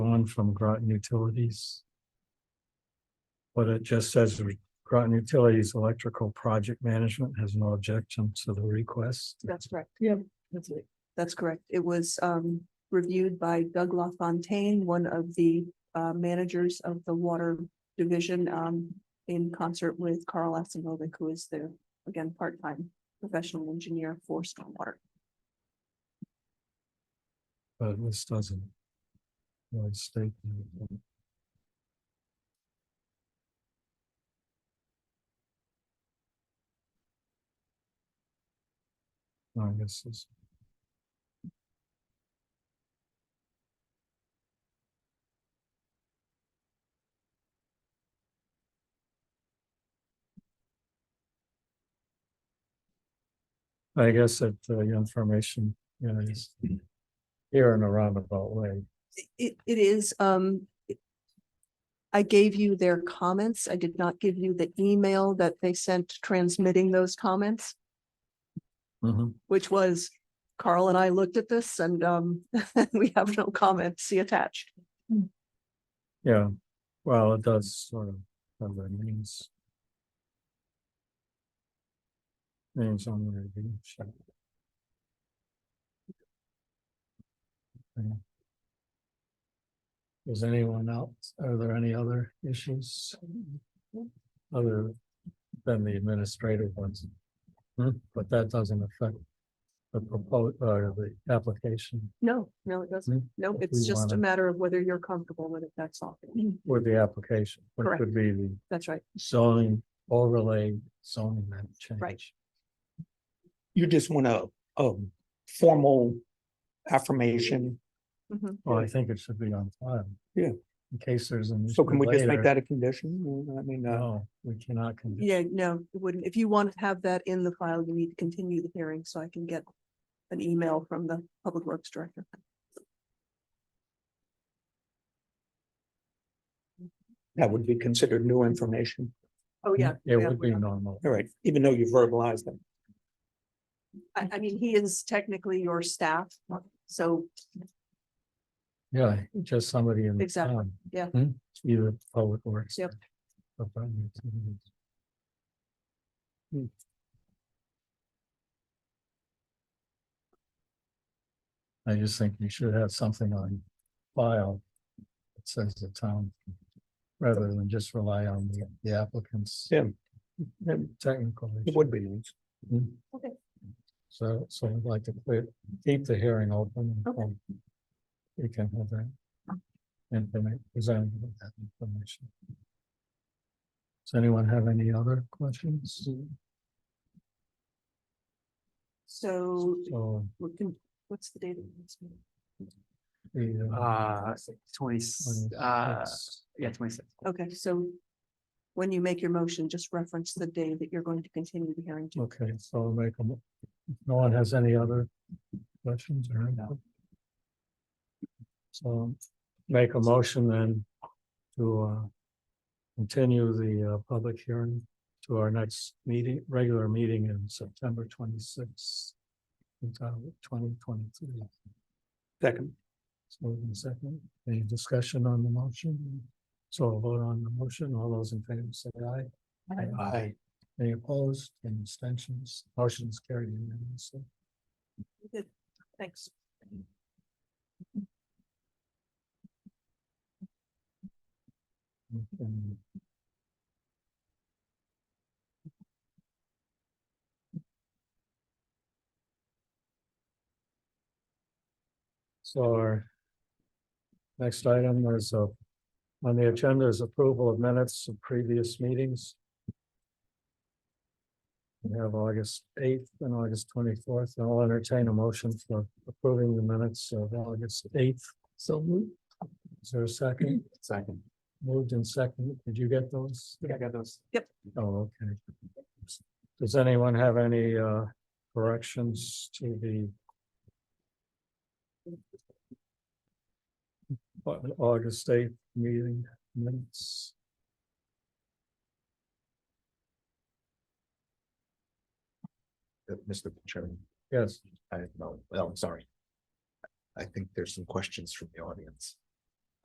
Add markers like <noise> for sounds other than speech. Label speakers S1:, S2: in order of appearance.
S1: fund from Groton Utilities. But it just says Groton Utilities Electrical Project Management has no objection to the request.
S2: That's correct.
S3: Yeah, that's it.
S2: That's correct. It was um reviewed by Doug LaFontaine, one of the uh managers of the water division. Um, in concert with Carl Asimovic, who is the, again, part-time professional engineer for stormwater.
S1: But this doesn't. Really state. anything. No, I guess it's. I guess that uh, your information, you know, is here in a roundabout way.
S2: It it is um. it- I gave you their comments. I did not give you the email that they sent transmitting those comments. which was Carl and I looked at this and um, <laughs> we have no comment, see attached.
S1: Yeah, well, it does sort of, have that means. Names on the review. sheet. Okay. Is anyone else, are there any other issues? Other than the administrative ones? Hmm, But that doesn't affect the proposed, or the application
S2: No, no, it
S1: Mm,
S2: doesn't. No,
S1: If
S2: it's
S1: we
S2: just a
S1: wanna- Mm-hmm.
S2: matter of whether you're comfortable with it, that's all.
S1: or the application, which
S2: Correct.
S1: would be the
S2: That's right.
S1: zoning overlay zoning map change.
S2: Right.
S4: You just want a, a formal affirmation.
S2: Mhm.
S1: Well, I think it should be on file.
S4: Yeah.
S1: In case there's an.
S4: So can we
S1: issue
S4: just make
S1: later.
S4: that a condition? I mean, uh,
S1: No, we cannot. condition-
S2: Yeah, no, it wouldn't. If you want to have that in the file, you need to continue the hearing so I can get an email from the Public Works Director.
S4: that would be considered new information.
S2: Oh, yeah.
S1: It
S2: yeah,
S1: would be
S2: yeah.
S1: normal.
S4: All right, even though you verbalized it.
S2: I, I mean, he is technically your staff, so
S1: Yeah, just somebody in. the
S2: Exactly,
S1: town.
S2: yeah.
S1: Hmm, Either public works.
S2: Yep.
S1: or private utilities. Hmm. I just think we should have something on file that says the town, rather than just rely on the- the applicants. Hmm,
S4: Yeah.
S1: Technical.
S4: It would be nice.
S1: Mm.
S2: Okay.
S1: So, so I'd like to clear, keep the hearing open.
S2: Okay.
S1: and We can have that. Informa- present that information. Does anyone have any other questions?
S2: so
S1: So
S2: we can, what's the date of this meeting?
S1: the.
S5: Uh, twenty, uh,
S1: yes.
S5: yeah, twenty-six.
S2: Okay, so when you make your motion, just reference the day that you're going to continue the hearing to.
S1: Okay, so I'll make a, mo- if no one has any other questions or anything? So make a motion then to uh. Continue the uh public hearing to our next meeting, regular meeting in September twenty sixth. Twenty twenty three,
S4: Second,
S1: so in second, any discussion on the motion? So a vote on the motion, all those in favor say aye.
S4: I,
S1: Any opposed, any abstentions, motion's carried unanimously.
S2: Good, Thanks.
S1: Okay. So our next item is uh, on the agenda is approval of minutes of previous meetings. We have August eighth and August twenty-fourth, and I'll entertain a motion for approving the minutes of August eighth. So Is there a second?
S5: Second.
S1: Moved and second. Did you get those?
S5: I got those.
S1: Oh, okay. Does anyone have any uh corrections to the? Au- August eighth meeting minutes?
S6: Uh, Mr. Chairman,
S1: Yes,
S6: I, no, well, I'm sorry. I think there's some questions from the audience.